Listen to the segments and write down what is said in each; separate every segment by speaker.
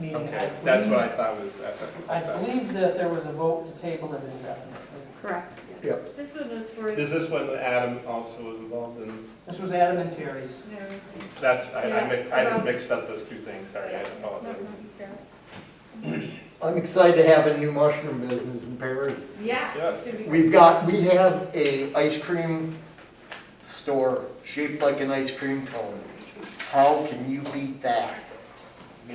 Speaker 1: meeting. I
Speaker 2: Okay, that's
Speaker 1: believe-
Speaker 2: what I thought was, I
Speaker 1: I
Speaker 2: thought.
Speaker 1: believe that there was a vote to table it indefinitely.
Speaker 3: Correct.
Speaker 4: Yep.
Speaker 5: This one was for,
Speaker 2: Is this one that Adam also was involved in?
Speaker 1: This was Adam and Terry's.
Speaker 5: no,
Speaker 2: That's, I, I mi- I just
Speaker 5: Yeah.
Speaker 2: mixed up those two things, sorry, I apologize.
Speaker 4: I'm excited to have a new mushroom business in Perry.
Speaker 2: Yes.
Speaker 5: Yes. it's gonna be-
Speaker 4: We've got, we have a ice cream store shaped like an ice cream cone. How can you beat that? A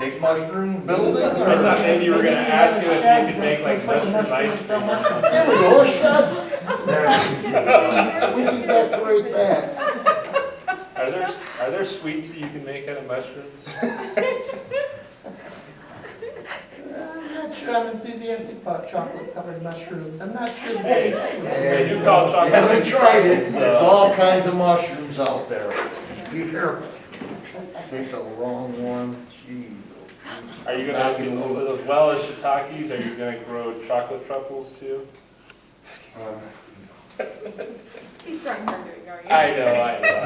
Speaker 4: big mushroom building
Speaker 2: I thought
Speaker 4: or?
Speaker 2: maybe you were gonna ask you if you could make like
Speaker 1: Looks like a
Speaker 2: mushroom ice
Speaker 1: mushroom somewhere.
Speaker 2: cream or something.
Speaker 4: There we go, a shed. We
Speaker 5: We
Speaker 4: can decorate that.
Speaker 2: Are there, are there sweets that you can make out of mushrooms?
Speaker 1: I'm not sure I'm enthusiastic about chocolate covered mushrooms. I'm not sure.
Speaker 2: Hey,
Speaker 4: Hey,
Speaker 2: they do call
Speaker 4: You
Speaker 2: chocolate.
Speaker 4: haven't tried it,
Speaker 2: so-
Speaker 4: there's all kinds of mushrooms out there. Be careful. Take the wrong one, jeez.
Speaker 2: Are you gonna, as well as shiitakes, are you gonna grow chocolate truffles too?
Speaker 5: He's trying hard to ignore you.
Speaker 2: I know, I know,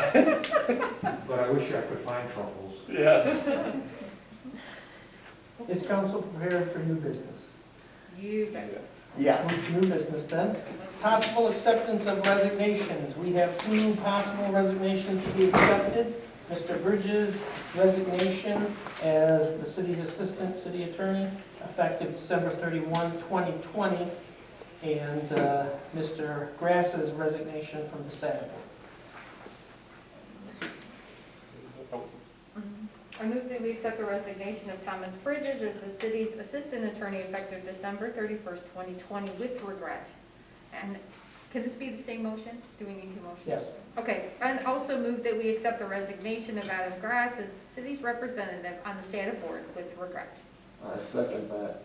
Speaker 6: But I wish I could find truffles.
Speaker 2: yes.
Speaker 1: Is council prepared for new business?
Speaker 5: You bet.
Speaker 4: Yes.
Speaker 1: New business then. Possible acceptance of resignations. We have two possible resignations to be accepted. Mr. Bridges' resignation as the city's assistant city attorney, effective December 31, 2020, and uh, Mr. Grass's resignation from the Senate.
Speaker 2: Oh,
Speaker 5: I move that we accept the resignation of Thomas Bridges as the city's assistant attorney effective December thirty-first, twenty twenty with regret. And can this be the same motion? Do we need two motions?
Speaker 1: Yes.
Speaker 5: Okay, and also move that we accept the resignation of Adam Grass as the city's representative on the SADA board with regret.
Speaker 4: I second that.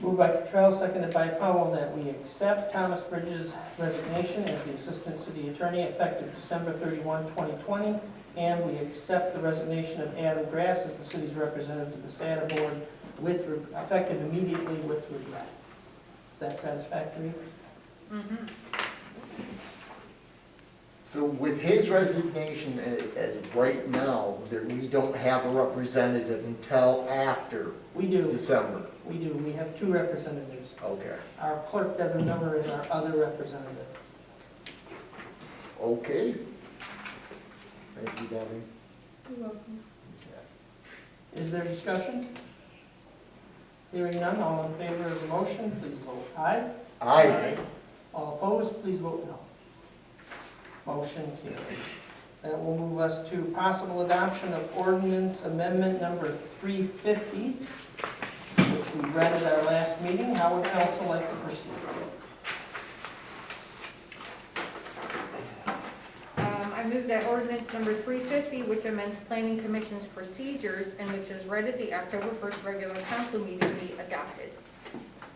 Speaker 1: Moved by Cottrell, seconded by Powell, that we accept Thomas Bridges' resignation as the Assistant City Attorney effective December 31, 2020, and we accept the resignation of Adam Grass as the city's representative to the SADA Board with, re- effective immediately with regret. Is that satisfactory?
Speaker 5: Mhm.
Speaker 4: So with his resignation a- as of right now, that we don't have a representative until after
Speaker 1: We do,
Speaker 4: December.
Speaker 1: we do. We have two representatives.
Speaker 4: Okay.
Speaker 1: Our clerk, Devin Miller, is our other representative.
Speaker 4: Okay. Thank you, Debbie.
Speaker 1: Is there discussion? Hearing none, all in favor of the motion, please vote aye.
Speaker 4: I,
Speaker 1: All opposed, please vote no. Motion carries. That will move us to possible adoption of ordinance amendment number 350, which we read at our last meeting. How would council like to proceed?
Speaker 5: Um, I move that ordinance number 350, which amends planning commission's procedures and which is read at the October 1st regular council meeting, be adopted.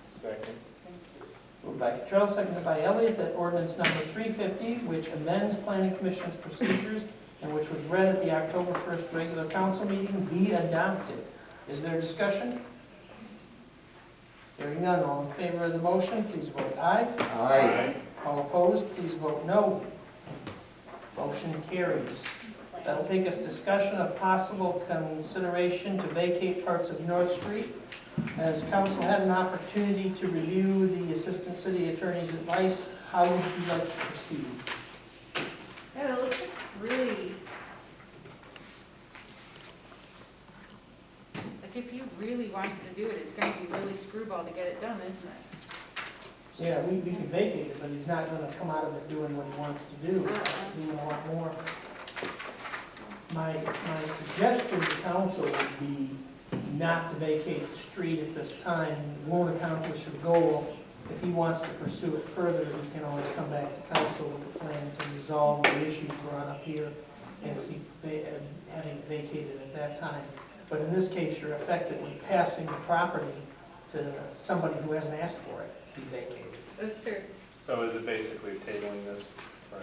Speaker 2: Second.
Speaker 1: Moved by Cottrell, seconded by Elliott, that ordinance number 350, which amends planning commission's procedures and which was read at the October 1st regular council meeting, be adopted. Is there discussion? Hearing none, all in favor of the motion, please vote aye.
Speaker 4: I,
Speaker 1: All opposed, please vote no. Motion carries. That'll take us discussion of possible consideration to vacate parts of North Street. Has council had an opportunity to review the assistant city attorney's advice? How would you like to proceed?
Speaker 5: Yeah, it looks really... Like, if he really wants to do it, it's gonna be really screwball to get it done, isn't it?
Speaker 1: Yeah, we, we can vacate it, but he's not gonna come out of it doing what he wants to do. We would want more. My, my suggestion to council would be not to vacate the street at this time. It won't accomplish a goal. If he wants to pursue it further, he can always come back to council with a plan to resolve the issues brought up here and see, va- and having it vacated at that time. But in this case, you're effectively passing the property to somebody who hasn't asked for it to be vacated.
Speaker 5: That's true.
Speaker 2: So is it basically tabling this for,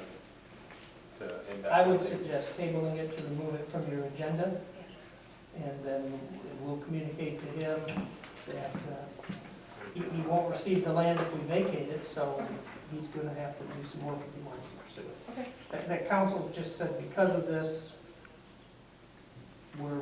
Speaker 2: to indefinitely?
Speaker 1: I would suggest tabling it to remove it from your agenda, and then we'll communicate to him that uh, he he won't receive the land if we vacate it, so he's going to have to do some work if he wants to pursue it.
Speaker 5: Okay.
Speaker 1: That- That council just said because of this, we're